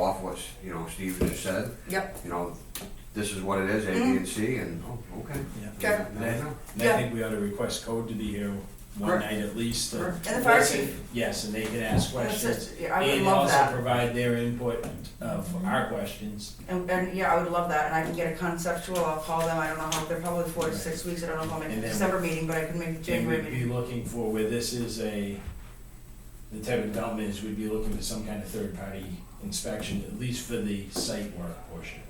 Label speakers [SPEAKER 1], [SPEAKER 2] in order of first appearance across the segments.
[SPEAKER 1] off what, you know, Steve just said,
[SPEAKER 2] Yep,
[SPEAKER 1] you know, this is what it is, A, B, and C, and, oh, okay.
[SPEAKER 3] Yeah.
[SPEAKER 2] Okay.
[SPEAKER 1] Now I know.
[SPEAKER 3] And I think we ought to request code to be here one
[SPEAKER 1] Correct.
[SPEAKER 3] night at least. to-
[SPEAKER 2] Correct. And the fire chief.
[SPEAKER 3] Yes, and they can
[SPEAKER 2] That's
[SPEAKER 3] ask questions.
[SPEAKER 2] it. Yeah, I would love
[SPEAKER 3] And also
[SPEAKER 2] that.
[SPEAKER 3] provide their input uh, for our questions.
[SPEAKER 2] and, and yeah, I would love that, and I can get a conceptual, I'll call them, I don't know how, they're probably four to six weeks, I don't know if I'll make
[SPEAKER 3] And
[SPEAKER 2] the
[SPEAKER 3] then-
[SPEAKER 2] December meeting, but I can make the
[SPEAKER 3] And
[SPEAKER 2] January
[SPEAKER 3] we'd be
[SPEAKER 2] meeting.
[SPEAKER 3] looking for where this is a, the type of development is we'd be looking for some kind of third-party inspection, at least for the site work portion.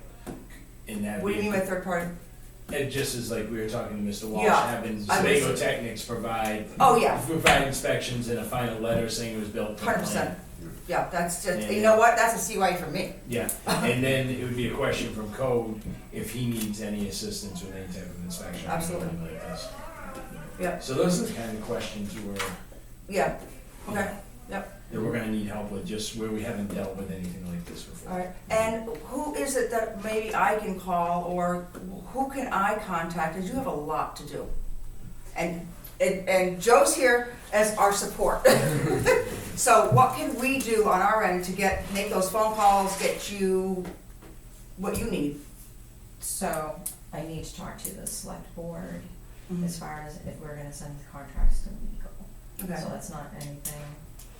[SPEAKER 3] And that.
[SPEAKER 2] What do you mean by third party?
[SPEAKER 3] It just is like we were talking to Mr. Walsh,
[SPEAKER 2] Yeah,
[SPEAKER 3] having
[SPEAKER 2] I was-
[SPEAKER 3] Sebago Technics provide.
[SPEAKER 2] Oh, yeah.
[SPEAKER 3] Provide inspections and a final letter saying it was built. to
[SPEAKER 2] Hundred
[SPEAKER 3] plan.
[SPEAKER 2] percent, yeah, that's just,
[SPEAKER 3] Yeah.
[SPEAKER 2] you know what, that's a CY for me.
[SPEAKER 3] Yeah, and then it would be a question from code if he needs any assistance with any type of inspection. or
[SPEAKER 2] Absolutely.
[SPEAKER 3] something like this.
[SPEAKER 2] Yep.
[SPEAKER 3] So those are the kind of questions where,
[SPEAKER 2] Yeah, okay, yep,
[SPEAKER 3] that we're gonna need help with, just where we haven't dealt with anything like this before.
[SPEAKER 2] alright, and who is it that maybe I can call, or who can I contact, cause you have a lot to do. And, and, and Joe's here as our support. So what can we do on our end to get, make those phone calls, get you what you need?
[SPEAKER 4] So I need to talk to the select board
[SPEAKER 2] Mhm.
[SPEAKER 4] as far as if we're gonna send the contracts to legal.
[SPEAKER 2] Okay.
[SPEAKER 4] So that's not anything,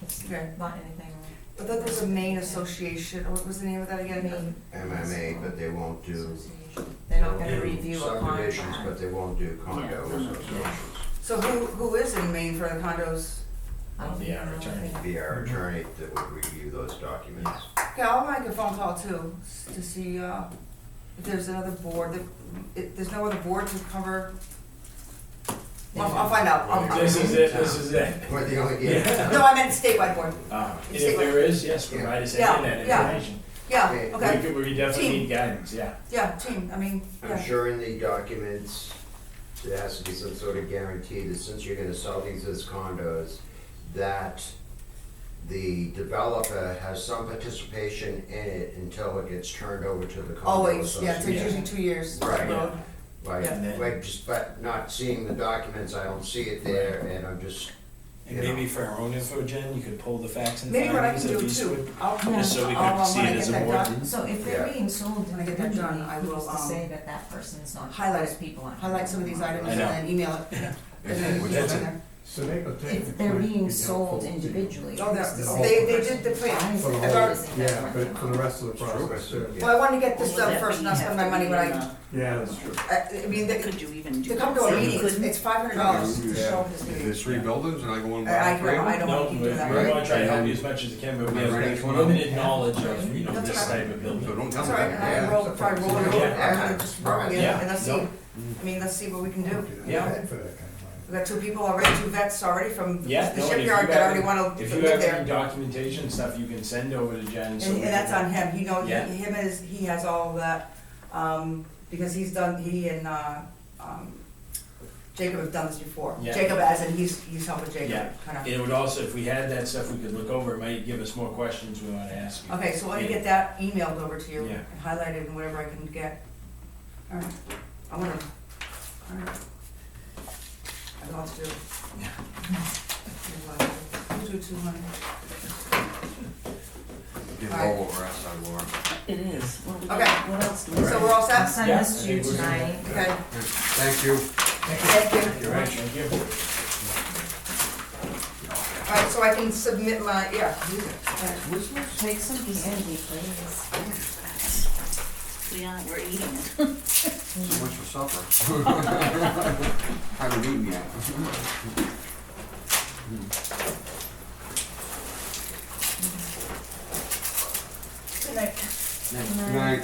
[SPEAKER 4] it's
[SPEAKER 2] Okay.
[SPEAKER 4] not anything.
[SPEAKER 2] I thought there's a Maine association, or what was the name of that again?
[SPEAKER 4] Maine
[SPEAKER 1] MMA, but they won't do.
[SPEAKER 4] Association. They're not
[SPEAKER 1] they'll
[SPEAKER 4] gonna
[SPEAKER 1] do
[SPEAKER 4] review a
[SPEAKER 1] Subdivisions, but
[SPEAKER 4] contract.
[SPEAKER 1] they won't do condo
[SPEAKER 4] Yeah.
[SPEAKER 3] Mm-hmm.
[SPEAKER 1] associations.
[SPEAKER 2] So who, who is in Maine for the condos?
[SPEAKER 4] I don't
[SPEAKER 3] Yeah,
[SPEAKER 4] know.
[SPEAKER 3] return.
[SPEAKER 1] Be our attorney that would review those documents.
[SPEAKER 2] Okay, I'll make a phone call too, s- to see, uh, if there's another board, that, if, there's no other board to cover. I'll, I'll find out, I'll,
[SPEAKER 3] This is it, this is it.
[SPEAKER 1] We're the only,
[SPEAKER 3] Yeah.
[SPEAKER 1] yeah.
[SPEAKER 2] no, I meant statewide board,
[SPEAKER 3] Uh, and if there is, yes, provide us any
[SPEAKER 2] Yeah,
[SPEAKER 3] of that
[SPEAKER 2] yeah.
[SPEAKER 3] information.
[SPEAKER 2] yeah,
[SPEAKER 1] Okay.
[SPEAKER 3] We
[SPEAKER 2] okay,
[SPEAKER 3] could, we definitely
[SPEAKER 2] Team.
[SPEAKER 3] need guidance, yeah.
[SPEAKER 2] yeah, team, I mean,
[SPEAKER 1] I'm
[SPEAKER 2] yeah,
[SPEAKER 1] sure in the documents, there has to be some sort of guarantee that since you're gonna sell these as condos, that the developer has some participation in it until it gets turned over to the condo
[SPEAKER 2] always, yeah, so
[SPEAKER 1] association.
[SPEAKER 2] it's usually two years.
[SPEAKER 1] Right.
[SPEAKER 2] road.
[SPEAKER 3] And
[SPEAKER 1] Like,
[SPEAKER 3] then-
[SPEAKER 1] like, just, but not seeing the documents, I don't see it there, and I'm just,
[SPEAKER 3] And maybe for our own info, Jen, you could pull the facts and
[SPEAKER 2] Maybe what I
[SPEAKER 3] findings
[SPEAKER 2] can
[SPEAKER 3] of
[SPEAKER 2] do
[SPEAKER 3] these.
[SPEAKER 2] too, I'll, I'll,
[SPEAKER 3] Just so we could
[SPEAKER 2] I'll-
[SPEAKER 3] see
[SPEAKER 2] when
[SPEAKER 3] it
[SPEAKER 2] I get
[SPEAKER 3] as a
[SPEAKER 2] that
[SPEAKER 3] board.
[SPEAKER 2] done,
[SPEAKER 4] So if they're
[SPEAKER 1] Yeah.
[SPEAKER 4] being sold,
[SPEAKER 2] When I get that
[SPEAKER 4] individually,
[SPEAKER 2] done, I will,
[SPEAKER 4] who's to
[SPEAKER 2] um,
[SPEAKER 4] say that that person's not,
[SPEAKER 2] highlight
[SPEAKER 4] those
[SPEAKER 2] it.
[SPEAKER 4] people aren't.
[SPEAKER 2] highlight some of these items
[SPEAKER 3] I
[SPEAKER 2] and
[SPEAKER 3] know.
[SPEAKER 2] then email it. And then
[SPEAKER 3] Which
[SPEAKER 2] put it
[SPEAKER 3] is
[SPEAKER 2] in
[SPEAKER 3] it.
[SPEAKER 2] there.
[SPEAKER 5] Sebago
[SPEAKER 4] If
[SPEAKER 5] technically.
[SPEAKER 4] they're
[SPEAKER 5] you know,
[SPEAKER 4] being sold
[SPEAKER 5] for-
[SPEAKER 4] individually.
[SPEAKER 2] Oh, they're-
[SPEAKER 4] who's to
[SPEAKER 5] oh,
[SPEAKER 4] say
[SPEAKER 2] they-
[SPEAKER 4] the
[SPEAKER 2] they did the
[SPEAKER 4] person
[SPEAKER 2] plan.
[SPEAKER 4] buys
[SPEAKER 5] For the
[SPEAKER 4] it,
[SPEAKER 2] I've
[SPEAKER 5] whole,
[SPEAKER 2] already-
[SPEAKER 4] isn't that
[SPEAKER 5] yeah,
[SPEAKER 4] working
[SPEAKER 5] but for the
[SPEAKER 4] on?
[SPEAKER 5] rest of the
[SPEAKER 1] Sure.
[SPEAKER 5] process, too.
[SPEAKER 1] Yeah.
[SPEAKER 2] Well, I wanted to get this
[SPEAKER 6] Well,
[SPEAKER 2] done
[SPEAKER 6] that
[SPEAKER 2] first,
[SPEAKER 6] mean
[SPEAKER 2] not
[SPEAKER 6] you have
[SPEAKER 2] spend my
[SPEAKER 6] to
[SPEAKER 2] money
[SPEAKER 6] be
[SPEAKER 2] when
[SPEAKER 6] in
[SPEAKER 2] I,
[SPEAKER 6] a-
[SPEAKER 5] Yeah, that's true.
[SPEAKER 2] I, I mean, they,
[SPEAKER 6] Could you even do
[SPEAKER 2] to
[SPEAKER 6] that?
[SPEAKER 2] come to a
[SPEAKER 6] So you
[SPEAKER 2] meeting, it's,
[SPEAKER 6] couldn't?
[SPEAKER 2] it's five hundred dollars to show up this
[SPEAKER 7] If
[SPEAKER 2] meeting.
[SPEAKER 7] there's three buildings and I go in
[SPEAKER 2] I, I,
[SPEAKER 7] by three,
[SPEAKER 2] don't- I
[SPEAKER 7] of
[SPEAKER 2] don't
[SPEAKER 3] No,
[SPEAKER 2] wanna
[SPEAKER 3] we
[SPEAKER 2] keep
[SPEAKER 3] we
[SPEAKER 2] doing that.
[SPEAKER 3] wanna try to help you as much as we can, but we
[SPEAKER 7] Right.
[SPEAKER 3] have limited knowledge of, you know,
[SPEAKER 2] That's
[SPEAKER 3] this
[SPEAKER 2] right.
[SPEAKER 3] type of
[SPEAKER 7] them, so
[SPEAKER 3] building.
[SPEAKER 7] don't tell me
[SPEAKER 2] That's all right, and
[SPEAKER 7] that.
[SPEAKER 2] I
[SPEAKER 5] Yeah.
[SPEAKER 2] roll, try to roll it over, I'm
[SPEAKER 3] Yeah.
[SPEAKER 2] gonna just roll it in,
[SPEAKER 3] Yeah.
[SPEAKER 2] and let's see,
[SPEAKER 3] No.
[SPEAKER 2] I mean, let's see what we can do.
[SPEAKER 5] Don't do that.
[SPEAKER 3] Yeah.
[SPEAKER 5] For that kind of money.
[SPEAKER 2] We've got two people already, two vets already from the
[SPEAKER 3] Yeah, no, and if you
[SPEAKER 2] shipyard that
[SPEAKER 3] have-
[SPEAKER 2] already wanna
[SPEAKER 3] If you have
[SPEAKER 2] live
[SPEAKER 3] any
[SPEAKER 2] there.
[SPEAKER 3] documentation stuff, you can send over to Jen,
[SPEAKER 2] And,
[SPEAKER 3] so.
[SPEAKER 2] and
[SPEAKER 3] we
[SPEAKER 2] that's
[SPEAKER 3] can-
[SPEAKER 2] on him, he knows,
[SPEAKER 3] Yeah.
[SPEAKER 2] him is, he has all of that, um, because he's done, he and, uh, um, Jacob have done this before.
[SPEAKER 3] Yeah.
[SPEAKER 2] Jacob as in he's, he's helping
[SPEAKER 3] Yeah.
[SPEAKER 2] Jacob, kinda.
[SPEAKER 3] It would also, if we had that stuff, we could look over, it might give us more questions we wanna ask you.
[SPEAKER 2] Okay, so let me
[SPEAKER 3] Yeah.
[SPEAKER 2] get that emailed over to you,
[SPEAKER 3] Yeah.
[SPEAKER 2] and highlighted and whatever I can get. Alright, I wanna, alright. I have a lot to do.
[SPEAKER 3] Yeah.
[SPEAKER 2] You do too, honey.
[SPEAKER 7] Get all over us, I will.
[SPEAKER 6] It is. What do we-
[SPEAKER 2] Okay.
[SPEAKER 6] What else do we?
[SPEAKER 2] So we're all
[SPEAKER 4] I'll
[SPEAKER 2] set?
[SPEAKER 4] send
[SPEAKER 3] Yeah,
[SPEAKER 4] this
[SPEAKER 3] I
[SPEAKER 4] to you
[SPEAKER 3] think we're good.
[SPEAKER 4] tonight.
[SPEAKER 2] Okay,
[SPEAKER 1] thank you.
[SPEAKER 2] thank you.
[SPEAKER 3] You're right, thank you.
[SPEAKER 2] Alright, so I can submit my, yeah. Alright.
[SPEAKER 4] Take some candy, please.
[SPEAKER 6] We are, we're eating it.
[SPEAKER 7] So much for supper. Haven't eaten yet.
[SPEAKER 2] Good night.
[SPEAKER 7] Good night.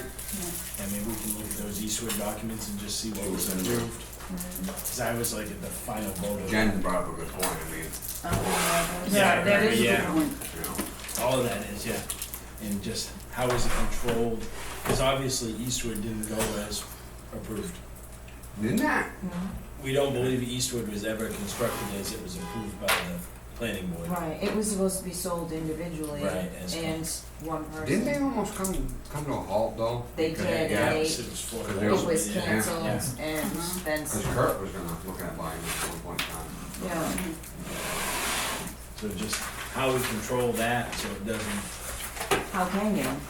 [SPEAKER 3] And maybe we can look at those Eastwood documents and just see what was approved.
[SPEAKER 4] Mm-hmm.
[SPEAKER 3] Cause I was like at the final vote of.
[SPEAKER 7] Jen brought up a good point, I mean,
[SPEAKER 3] Yeah,
[SPEAKER 6] That
[SPEAKER 3] yeah.
[SPEAKER 6] is a good one.
[SPEAKER 7] you know.
[SPEAKER 3] All of that is, yeah. And just how is it controlled? Because obviously Eastwood didn't go as approved.
[SPEAKER 7] Didn't that?
[SPEAKER 3] We don't believe Eastwood was ever constructed as it was approved by the planning board.
[SPEAKER 4] Right, it was supposed to be sold individually
[SPEAKER 3] Right, as-
[SPEAKER 4] and one person.
[SPEAKER 7] Didn't they almost come, come to a halt though?
[SPEAKER 4] They
[SPEAKER 7] Because-
[SPEAKER 4] did,
[SPEAKER 3] Yeah,
[SPEAKER 7] Yeah,
[SPEAKER 4] they-
[SPEAKER 3] so it was for-
[SPEAKER 7] Because
[SPEAKER 4] It was
[SPEAKER 3] Yeah.
[SPEAKER 4] canceled
[SPEAKER 3] Yeah.
[SPEAKER 4] and then,
[SPEAKER 7] cause Kurt was gonna look at buying this at one point in time.
[SPEAKER 4] yeah.
[SPEAKER 3] So just how we control that so it doesn't
[SPEAKER 4] How can you?